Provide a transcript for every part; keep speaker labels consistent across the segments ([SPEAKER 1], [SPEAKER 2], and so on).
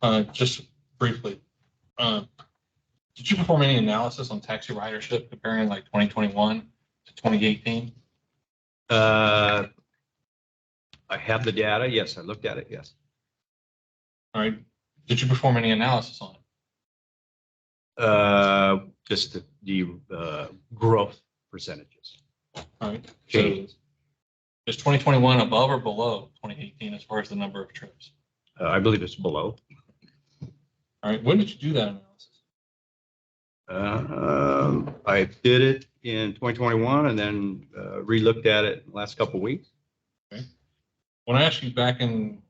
[SPEAKER 1] Uh, just briefly, uh, did you perform any analysis on taxi ridership comparing like twenty twenty-one to twenty eighteen?
[SPEAKER 2] Uh, I have the data. Yes, I looked at it. Yes.
[SPEAKER 1] All right, did you perform any analysis on it?
[SPEAKER 2] Uh, just the, the, uh, growth percentages.
[SPEAKER 1] All right, so
[SPEAKER 2] Changes.
[SPEAKER 1] is twenty twenty-one above or below twenty eighteen as far as the number of trips?
[SPEAKER 2] Uh, I believe it's below.
[SPEAKER 1] All right, when did you do that analysis?
[SPEAKER 2] Uh, I did it in twenty twenty-one and then, uh, relooked at it last couple of weeks.
[SPEAKER 1] When I asked you back in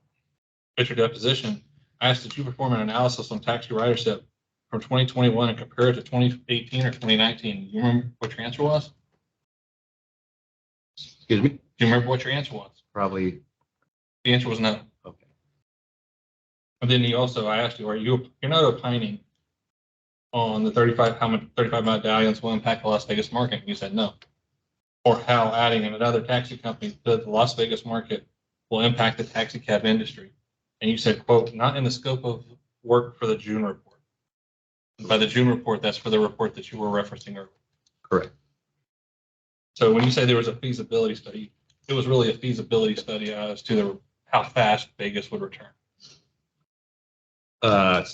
[SPEAKER 1] at your deposition, I asked that you perform an analysis on taxi ridership from twenty twenty-one and compare it to twenty eighteen or twenty nineteen. You remember what your answer was?
[SPEAKER 2] Excuse me,
[SPEAKER 1] Do you remember what your answer was?
[SPEAKER 2] probably,
[SPEAKER 1] The answer was no.
[SPEAKER 2] okay.
[SPEAKER 1] And then he also, I asked you, are you, you're not opining on the thirty-five, how much thirty-five medallions will impact the Las Vegas market? And you said no. Or how adding another taxi company to the Las Vegas market will impact the taxi cab industry. And you said, quote, not in the scope of work for the June report. And By the June report, that's for the report that you were referencing earlier.
[SPEAKER 2] Correct.
[SPEAKER 1] So when you say there was a feasibility study, it was really a feasibility study as to the, how fast Vegas would return.
[SPEAKER 2] Uh,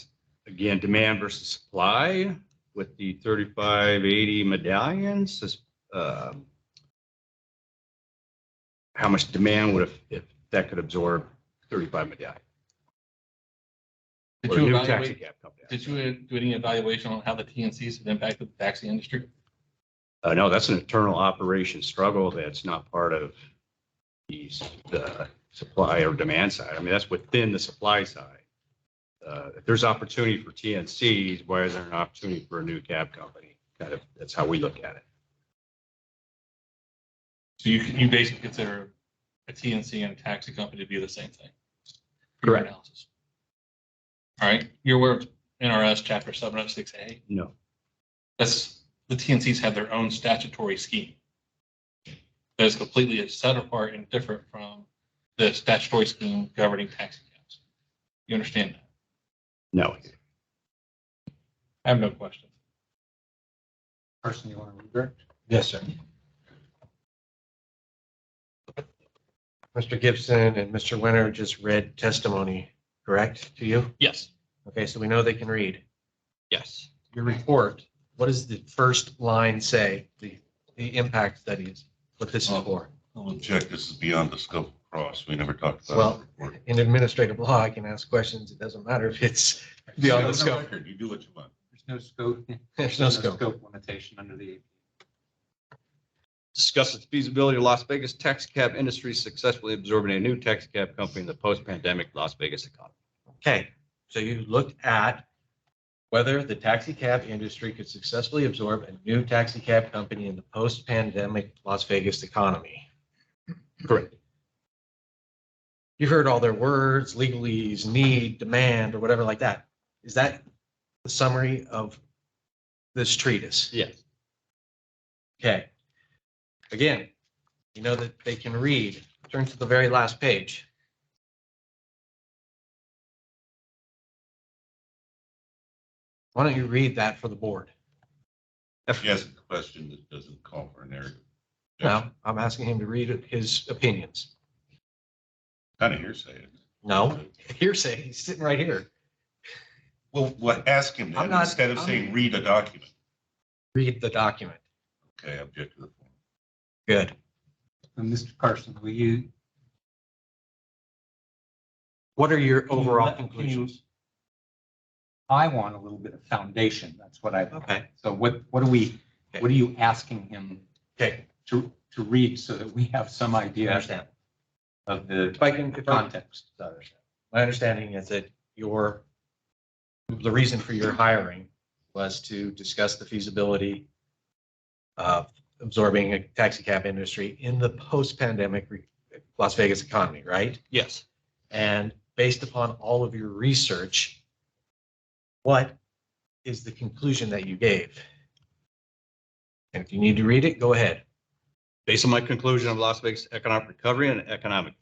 [SPEAKER 2] again, demand versus supply with the thirty-five eighty medallions, is, um, how much demand would have, if that could absorb thirty-five medallions?
[SPEAKER 1] Did
[SPEAKER 2] or a
[SPEAKER 1] you
[SPEAKER 2] new taxi
[SPEAKER 1] evaluate,
[SPEAKER 2] cab company.
[SPEAKER 1] did you do any evaluation on how the TNCs have impacted the taxi industry?
[SPEAKER 2] Uh, no, that's an internal operation struggle that's not part of these, the supply or demand side. I mean, that's within the supply side. Uh, if there's opportunity for TNCs, why is there an opportunity for a new cab company? Kind of, that's how we look at it.
[SPEAKER 1] So you, you basically consider a TNC and a taxi company to be the same thing? for your
[SPEAKER 2] Correct.
[SPEAKER 1] analysis. All right, you're aware of NRS chapter seven oh six A,
[SPEAKER 2] No,
[SPEAKER 1] that's, the TNCs have their own statutory scheme. That is completely set apart and different from the statutory scheme governing taxi cabs. You understand that?
[SPEAKER 2] no.
[SPEAKER 1] I have no questions.
[SPEAKER 3] Person you want to redirect? Yes, sir. Mr. Gibson and Mr. Winter just read testimony, correct, to you?
[SPEAKER 1] Yes.
[SPEAKER 3] Okay, so we know they can read.
[SPEAKER 2] Yes.
[SPEAKER 3] Your report, what does the first line say, the, the impact studies, what this is for?
[SPEAKER 4] Jack, this is beyond the scope of cross. We never talked about. it
[SPEAKER 3] Well,
[SPEAKER 4] before.
[SPEAKER 3] In administrative law, I can ask questions, it doesn't matter if it's beyond the
[SPEAKER 4] It's on
[SPEAKER 3] scope,
[SPEAKER 4] record. You do what you want.
[SPEAKER 5] There's no scope.
[SPEAKER 3] there's no scope.
[SPEAKER 5] Limitation under the.
[SPEAKER 2] Discusses feasibility of Las Vegas taxi cab industry successfully absorbing a new taxi cab company in the post-pandemic Las Vegas economy.
[SPEAKER 3] Okay, so you looked at whether the taxi cab industry could successfully absorb a new taxi cab company in the post-pandemic Las Vegas economy.
[SPEAKER 2] Correct.
[SPEAKER 3] You heard all their words, legalese, need, demand, or whatever like that. Is that the summary of this treatise?
[SPEAKER 2] Yes.
[SPEAKER 3] Okay. Again, you know that they can read. Turn to the very last page. Why don't you read that for the board?
[SPEAKER 4] He asked a question that doesn't call for a narrative.
[SPEAKER 3] No, I'm asking him to read his opinions.
[SPEAKER 4] Kind of hearsay. isn't it?
[SPEAKER 3] No, hearsay, he's sitting right here.
[SPEAKER 4] Well, what, ask him
[SPEAKER 3] I'm
[SPEAKER 4] that
[SPEAKER 3] not-
[SPEAKER 4] instead of
[SPEAKER 3] I'm-
[SPEAKER 4] saying, read a document.
[SPEAKER 3] Read the document.
[SPEAKER 4] Okay, I object to the form.
[SPEAKER 3] Good.
[SPEAKER 5] And Mr. Carson, will you?
[SPEAKER 3] What are your overall
[SPEAKER 5] Can you-
[SPEAKER 3] conclusions?
[SPEAKER 5] I want a little bit of foundation. That's what I,
[SPEAKER 3] Okay,
[SPEAKER 5] so what, what are we,
[SPEAKER 3] Okay.
[SPEAKER 5] what are you asking him
[SPEAKER 3] okay,
[SPEAKER 5] to, to read so that we have some
[SPEAKER 3] I
[SPEAKER 5] idea
[SPEAKER 3] understand.
[SPEAKER 5] of the
[SPEAKER 3] If I can, if I
[SPEAKER 5] context?
[SPEAKER 3] My understanding is that your, the reason for your hiring was to discuss the feasibility of absorbing a taxi cab industry in the post-pandemic re- Las Vegas economy, right?
[SPEAKER 2] Yes.
[SPEAKER 3] And based upon all of your research, what is the conclusion that you gave? And if you need to read it, go ahead.
[SPEAKER 2] Based on my conclusion of Las Vegas economic recovery and economic